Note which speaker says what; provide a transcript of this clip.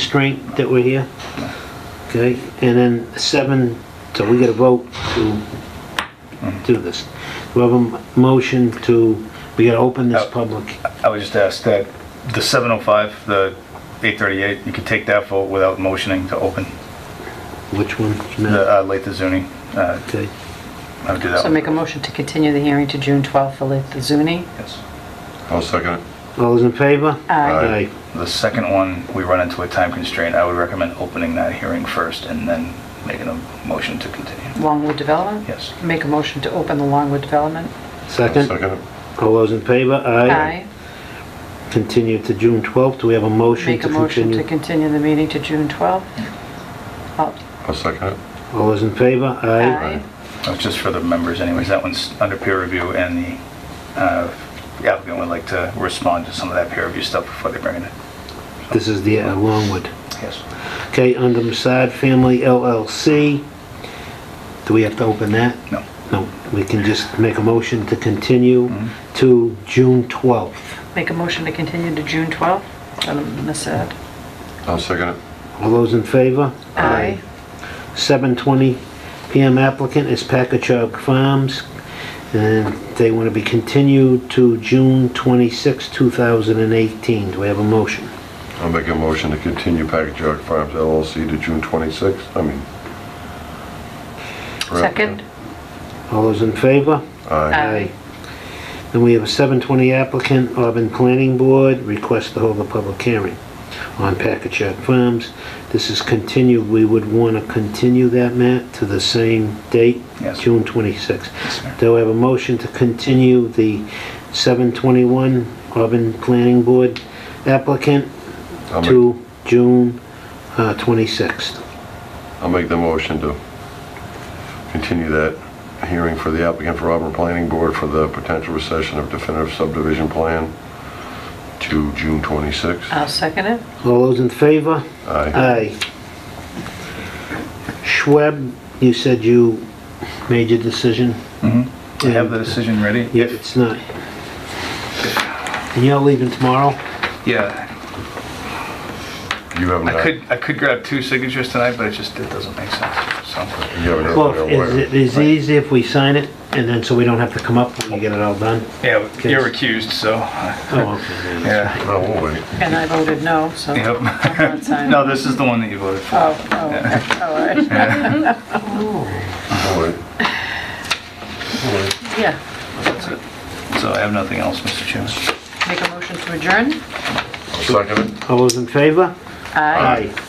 Speaker 1: constraint that we're here? Okay, and then seven, so we get a vote to do this. We have a m- motion to, we gotta open this
Speaker 2: Oh.
Speaker 1: public.
Speaker 2: I would just ask that the 705, the 838, you could take that vote without motioning to open.
Speaker 1: Which one?
Speaker 2: The uh, Latha Zuni, uh,
Speaker 1: Okay,
Speaker 2: I would do that.
Speaker 3: So
Speaker 2: one.
Speaker 3: make a motion to continue the hearing to June 12th for Latha Zuni.
Speaker 2: Yes.
Speaker 4: I'll second it.
Speaker 1: all those in favor?
Speaker 4: Aye.
Speaker 2: The second one, we run into a time constraint. I would recommend opening that hearing first and then making a motion to continue.
Speaker 3: Longwood Development?
Speaker 2: Yes.
Speaker 3: Make a motion to open the Longwood Development.
Speaker 4: I'll
Speaker 1: Second,
Speaker 4: Second it.
Speaker 1: all those in favor? Continue to June 12th, do we have a motion
Speaker 3: Make
Speaker 1: to
Speaker 3: a motion to
Speaker 1: continue?
Speaker 3: continue the meeting to June 12th. Oh,
Speaker 4: I'll second it.
Speaker 1: All those in favor?
Speaker 3: Aye.
Speaker 2: That's Oh, just for the members anyways. That one's under peer review and the uh, the applicant would like to respond to some of that peer review stuff before they bring it in.
Speaker 1: This is the uh, Longwood.
Speaker 2: Yes.
Speaker 1: Okay, under Masad Family LLC, do we have to open that?
Speaker 2: No.
Speaker 1: No, we can just make a motion to continue to June 12th.
Speaker 3: Make a motion to continue to June 12th. Um, Ms. Ed.
Speaker 4: I'll second it.
Speaker 1: All those in favor? 7:20 PM applicant is Packagug Farms, and they want to be continued to June 26, 2018. Do we have a motion?
Speaker 4: I'll make a motion to continue Package Jog Farms LLC to June 26th, I mean.
Speaker 3: Second?
Speaker 1: All those in favor?
Speaker 4: Aye.
Speaker 2: Uh,
Speaker 1: Then we have a 720 applicant, Auburn Planning Board, request to hold a public hearing on Packagug Farms. This is continued, we would want to continue that, Matt, to the same date?
Speaker 2: Yes.
Speaker 1: June 26th.
Speaker 2: sir.
Speaker 1: Do I have a motion to continue the 721 Auburn Planning Board applicant
Speaker 4: I'll make-
Speaker 1: to June uh, 26th?
Speaker 4: I'll make the motion to continue that hearing for the applicant for Auburn Planning Board for the potential recession of definitive subdivision plan to June 26th.
Speaker 2: Uh,
Speaker 3: I'll second it.
Speaker 1: All those in favor? Aye.
Speaker 4: Aye.
Speaker 1: Schweb, you said you made your decision?
Speaker 2: Do you have the decision ready?
Speaker 1: Yeah, it's not. And you're leaving tomorrow?
Speaker 2: Yeah.
Speaker 4: You have
Speaker 2: I
Speaker 4: not,
Speaker 2: could,
Speaker 4: you
Speaker 2: I could grab two signatures tonight, but it just, it doesn't make sense, so.
Speaker 4: haven't
Speaker 1: Well,
Speaker 4: opened your
Speaker 1: is
Speaker 4: wire.
Speaker 1: it is it easy if we sign it and then, so we don't have to come up when you get it all done?
Speaker 2: Yeah, you're recused, so,
Speaker 1: Oh, okay. then.
Speaker 2: yeah.
Speaker 4: Oh, we'll wait.
Speaker 3: And I voted no, so.
Speaker 2: Yep.
Speaker 3: I'm not signing.
Speaker 2: No, this is the one that you voted for.
Speaker 3: Oh, oh, okay. all right.
Speaker 4: We'll wait. We'll wait.
Speaker 3: Yeah.
Speaker 2: That's it. So I have nothing else, Mr. Chairman.
Speaker 3: Make a motion to adjourn.
Speaker 4: I'll second it.
Speaker 1: All those in favor?
Speaker 3: Aye.
Speaker 1: Aye.